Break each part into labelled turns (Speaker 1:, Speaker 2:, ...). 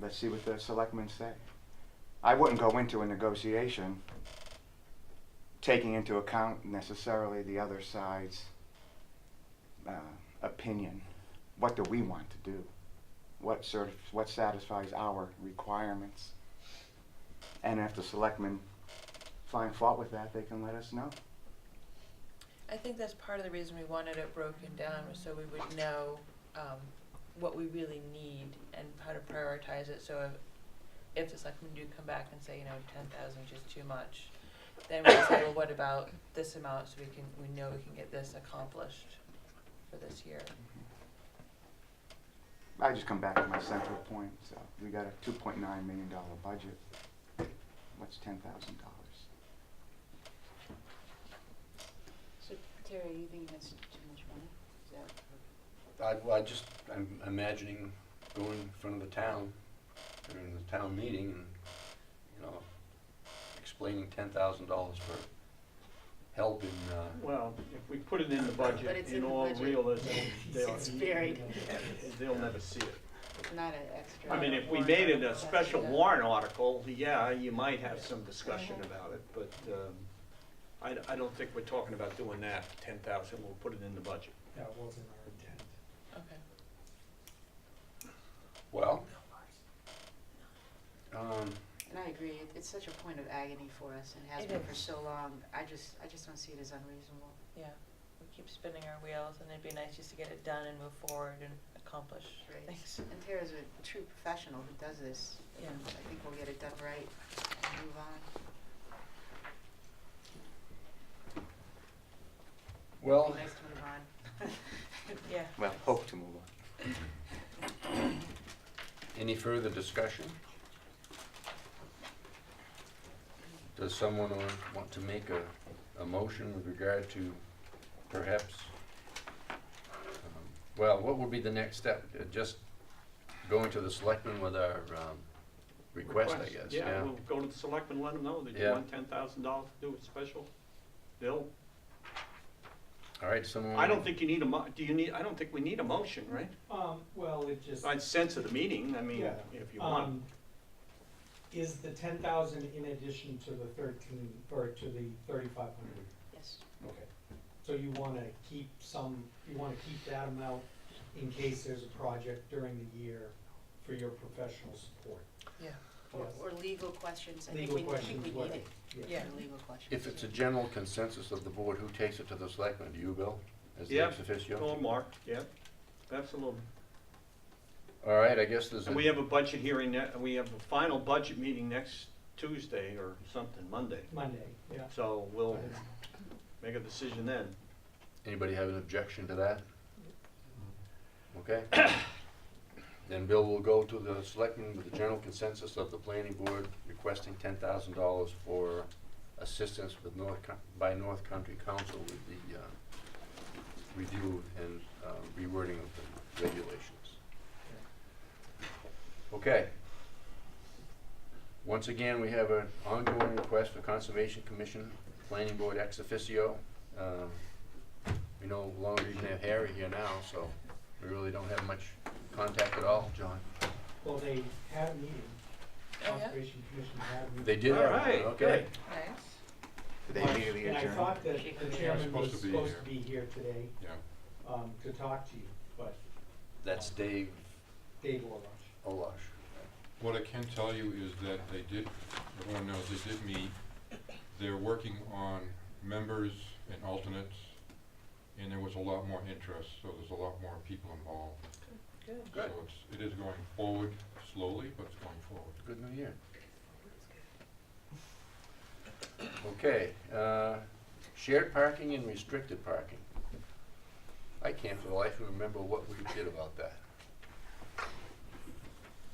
Speaker 1: Let's see what the selectmen say. I wouldn't go into a negotiation taking into account necessarily the other side's uh, opinion. What do we want to do? What sort of, what satisfies our requirements? And if the selectmen find fault with that, they can let us know.
Speaker 2: I think that's part of the reason we wanted it broken down was so we would know um, what we really need and how to prioritize it. So if, if the selectmen do come back and say, you know, ten thousand is just too much, then we say, well, what about this amount so we can we know we can get this accomplished for this year.
Speaker 1: I just come back to my central point, so we got a two point nine million dollar budget. What's ten thousand dollars?
Speaker 3: So Terry, are you thinking that's too much money? Is that,
Speaker 4: I, well, I just, I'm imagining going in front of the town, during the town meeting, and, you know, explaining ten thousand dollars for help in, uh,
Speaker 5: Well, if we put it in the
Speaker 3: But
Speaker 5: budget,
Speaker 3: it's
Speaker 5: in
Speaker 3: in the
Speaker 5: all
Speaker 3: budget.
Speaker 5: realism, they'll.
Speaker 3: It's buried.
Speaker 5: They'll never see it.
Speaker 3: it's not an extra.
Speaker 5: I mean, if we made it a special warrant article, yeah, you might have some discussion about it, but, um, I, I don't think we're talking about doing that, ten thousand, we'll put it in the budget.
Speaker 6: That wasn't our intent.
Speaker 2: Okay.
Speaker 4: well. Um,
Speaker 3: And I agree, it- it's such a point of agony for us and has
Speaker 2: It
Speaker 3: been for
Speaker 2: is.
Speaker 3: so long. I just, I just don't see it as unreasonable.
Speaker 2: Yeah. We keep spinning our wheels and it'd be nice just to get it done and move forward and accomplish
Speaker 3: Right.
Speaker 2: things.
Speaker 3: And Tara's a true professional who does this.
Speaker 2: Yeah.
Speaker 3: and I think we'll get it done right and move on. It'd
Speaker 4: well,
Speaker 3: be nice to move on.
Speaker 2: Yeah.
Speaker 1: Well, hope to move on.
Speaker 4: any further discussion? Does someone wa- want to make a, a motion with regard to perhaps, um, well, what would be the next step? Uh, Just going to the selectmen with our, um, request, I guess, yeah?
Speaker 5: we'll go to the selectmen, let them know that you
Speaker 4: Yeah.
Speaker 5: want ten thousand dollars to do a special bill.
Speaker 4: All right, someone.
Speaker 5: I don't think you need a mo, do you need, I don't think we need a motion, right?
Speaker 6: Um, well, it just,
Speaker 5: I'd sense of the meeting, I mean,
Speaker 6: Yeah.
Speaker 5: if you want.
Speaker 6: um, is the ten thousand in addition to the thirteen, or to the thirty-five hundred?
Speaker 3: Yes.
Speaker 6: Okay. So you wanna keep some, you wanna keep that amount in case there's a project during the year for your professional support?
Speaker 2: Yeah.
Speaker 3: Or,
Speaker 6: Yes.
Speaker 3: or legal questions. I think
Speaker 6: Legal
Speaker 3: we, I think
Speaker 6: questions,
Speaker 3: we need
Speaker 6: what?
Speaker 3: it.
Speaker 2: Yeah.
Speaker 3: For Legal questions.
Speaker 4: If it's a
Speaker 3: yeah.
Speaker 4: general consensus of the board, who takes it to the selectmen? Do you, Bill? As the
Speaker 5: Yeah.
Speaker 4: ex officio?
Speaker 5: Or Mark, yeah, absolutely.
Speaker 4: All right, I guess there's a.
Speaker 5: And we have a budget hearing, ne- we have a final budget meeting next Tuesday or something, Monday.
Speaker 6: Monday, yeah.
Speaker 5: So we'll make a decision then.
Speaker 4: Anybody have an objection to that? Okay. Then Bill will go to the selectmen with the general consensus of the planning board requesting ten thousand dollars for assistance with North, Coun- by North Country Council with the, uh, review and, uh, rewording of the regulations. Okay. Once again, we have an ongoing request for Conservation Commission, Planning Board ex officio. Um, we no longer even have Harry here now, so we really don't have much contact at all, John.
Speaker 6: Well, they had a meeting,
Speaker 2: Oh, yeah?
Speaker 6: Conservation Commission had a meeting.
Speaker 4: They did, have one,
Speaker 5: All right,
Speaker 4: okay.
Speaker 2: Nice.
Speaker 1: Did they
Speaker 6: But-
Speaker 1: immediately adjourn?
Speaker 6: And I thought that
Speaker 3: She
Speaker 6: the
Speaker 3: was
Speaker 6: chairman was
Speaker 7: supposed to be
Speaker 6: supposed to
Speaker 7: here.
Speaker 6: be here today,
Speaker 7: Yeah.
Speaker 6: um, to talk to you, but
Speaker 4: That's Dave
Speaker 6: Dave Orlosh.
Speaker 4: Olash.
Speaker 7: What I can tell you is that they did, everyone knows they did meet. They're working on members and alternates, and there was a lot more interest, so there's a lot more people involved.
Speaker 2: Good.
Speaker 4: Good.
Speaker 7: So it's, it is going forward slowly, but it's going forward.
Speaker 4: Good New Year. Okay, uh, shared parking and restricted parking. I can't for the life of me remember what we did about that.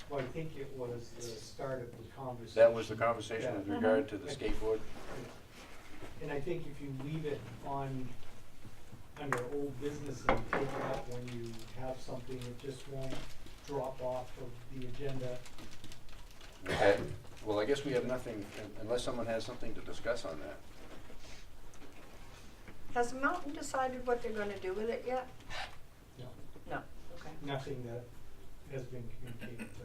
Speaker 6: Well, I think it was the start of the conversation.
Speaker 4: That was the conversation with
Speaker 6: Yeah.
Speaker 4: regard
Speaker 5: Uh-huh.
Speaker 4: to the skateboard?
Speaker 6: And I think if you leave it on, under old business and take it out when you have something, it just won't drop off of the agenda.
Speaker 4: Okay, well, I guess we have nothing, un- unless someone has something to discuss on that.
Speaker 8: Has Mountain decided what they're gonna do with it yet?
Speaker 6: No.
Speaker 8: No, okay.
Speaker 6: Nothing that has been communicated.